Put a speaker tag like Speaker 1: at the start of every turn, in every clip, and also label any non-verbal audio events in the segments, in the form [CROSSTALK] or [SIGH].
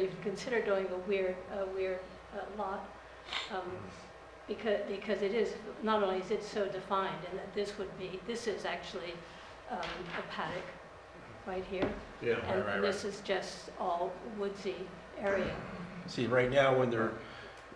Speaker 1: we'd consider doing a weir, a weir uh, lot. um, Because, because it is, not only is it so defined, and that this would be, this is actually um, a paddock right here.
Speaker 2: Yeah,
Speaker 1: And this is just all woodsy area.
Speaker 3: See, right now, when they're,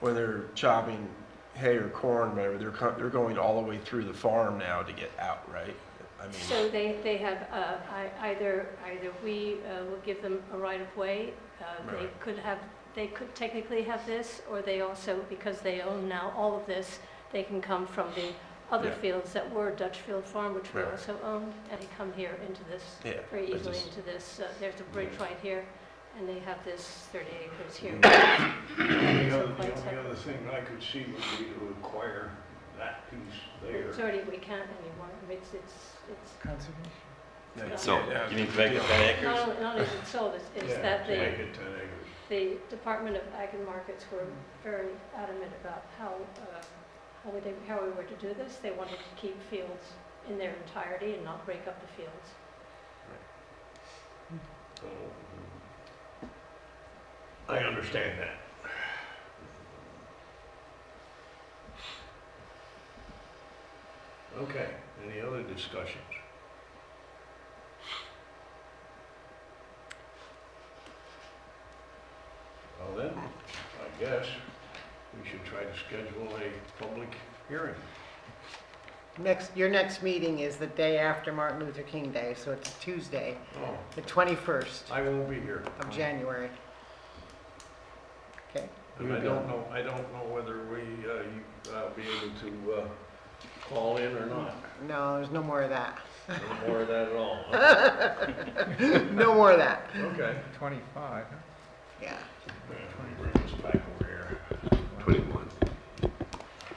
Speaker 3: when they're chopping hay or corn, whatever, they're, co- they're going all the way through the farm now to get out, right? I mean,
Speaker 1: So they, they have, uh, ei- either, either we uh, will give them a right of way, uh, they
Speaker 3: Right.
Speaker 1: could have, they could technically have this, or they also, because they own now all of this, they can come from the other
Speaker 3: Yeah.
Speaker 1: fields that were Dutch Field Farm, which we
Speaker 3: Right.
Speaker 1: also own, and they come here into this,
Speaker 3: yeah.
Speaker 1: very
Speaker 3: I
Speaker 1: easily
Speaker 3: just-
Speaker 1: into this. Uh, There's a bridge right here, and they have this 30 acres here.
Speaker 3: Mm-hmm.
Speaker 2: The
Speaker 1: So
Speaker 2: other, the
Speaker 1: quite
Speaker 2: only
Speaker 1: separate.
Speaker 2: other thing I could see would be to acquire that piece
Speaker 1: It's
Speaker 2: there.
Speaker 1: already, we can't anymore, I mean, it's, it's, it's
Speaker 3: yeah, yeah,
Speaker 4: So,
Speaker 3: yeah,
Speaker 4: you mean to make it ten
Speaker 1: not
Speaker 4: acres?
Speaker 1: only- not only is it sold, it's- it's
Speaker 2: Yeah,
Speaker 1: that
Speaker 2: to
Speaker 1: they,
Speaker 2: Make it ten acres.
Speaker 1: The Department of Ag and Markets were very adamant about how, uh, how we, they- how we were to do this. They wanted to keep fields in their entirety and not break up the fields.
Speaker 2: So, I understand that. Okay, any other discussions? Well then, I guess we should try to schedule a public hearing.
Speaker 5: Next, your next meeting is the day after Martin Luther King Day, so it's Tuesday,
Speaker 2: Oh,
Speaker 5: the 21st
Speaker 2: I won't be here.
Speaker 5: of January. Okay,
Speaker 2: And I don't know, I don't know whether we, uh, you, uh, be able to, uh, call in or [LAUGHS] not.
Speaker 5: no, there's no more of that. [LAUGHS]
Speaker 2: No more of that at all. [LAUGHS] Okay.
Speaker 5: No more of that.
Speaker 2: Okay.
Speaker 6: Twenty-five, huh?
Speaker 5: Yeah,
Speaker 2: Bring this back over here. Twenty-one.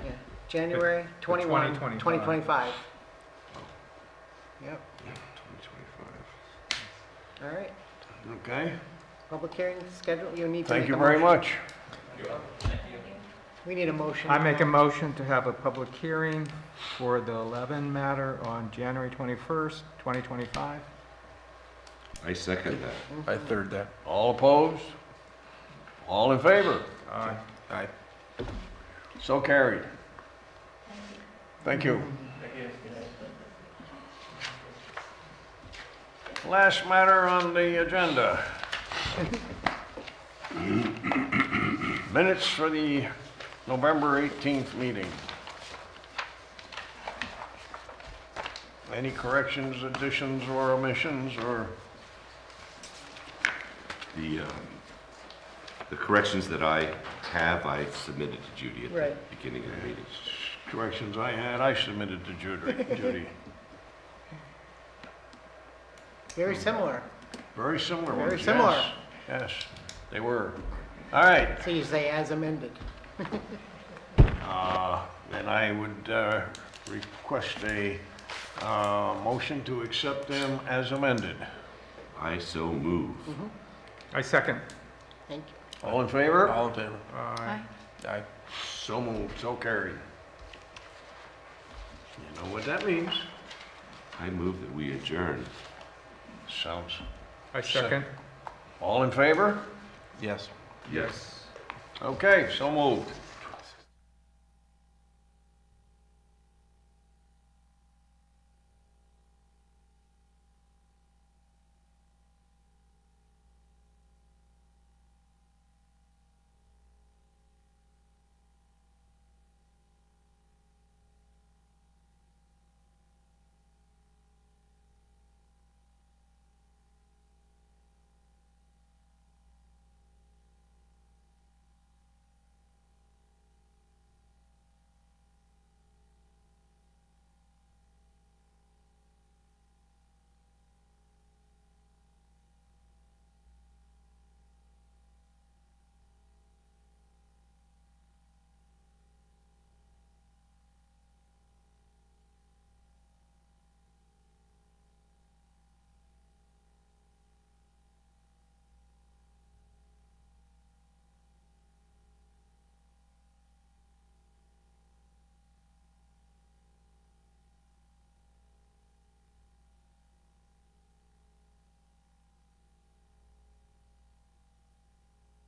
Speaker 5: yeah. January 21,
Speaker 6: 2025.
Speaker 5: 2025. Yep, all right.
Speaker 2: Okay.
Speaker 5: Public hearing scheduled, you need to
Speaker 2: Thank
Speaker 5: make
Speaker 2: you
Speaker 5: a
Speaker 2: very
Speaker 5: motion.
Speaker 2: much.
Speaker 5: We need a motion.
Speaker 6: I make a motion to have a public hearing for the Levin matter on January twenty-first, twenty twenty-five.
Speaker 4: I second that.
Speaker 3: I third that.
Speaker 2: All opposed? All in favor?
Speaker 6: Aye.
Speaker 3: I
Speaker 2: So carried. Thank you. Last matter on the agenda. Minutes for the November 18th meeting. Any corrections, additions, or omissions, or,
Speaker 7: The, um, the corrections that I have, I submitted to Judy at the
Speaker 5: Right.
Speaker 7: beginning of the meeting.
Speaker 2: corrections I had, I submitted to
Speaker 5: [LAUGHS]
Speaker 2: Judy- Judy.
Speaker 5: Very similar.
Speaker 2: Very similar ones.
Speaker 5: Very similar.
Speaker 2: yes, Yes, they were. All right,
Speaker 5: So you say as amended.
Speaker 2: uh, then I would uh, request a uh, motion to accept them as amended.
Speaker 7: I so move.
Speaker 6: I second.
Speaker 5: Thank you.
Speaker 2: All in favor?
Speaker 3: All in favor?
Speaker 6: Aye.
Speaker 3: Aye.
Speaker 2: So moved, so carried. You know what that means?
Speaker 7: I move that we adjourn.
Speaker 2: Sounds,
Speaker 6: I second.
Speaker 2: all in favor?
Speaker 3: Yes.
Speaker 7: Yes.
Speaker 2: Okay, so moved.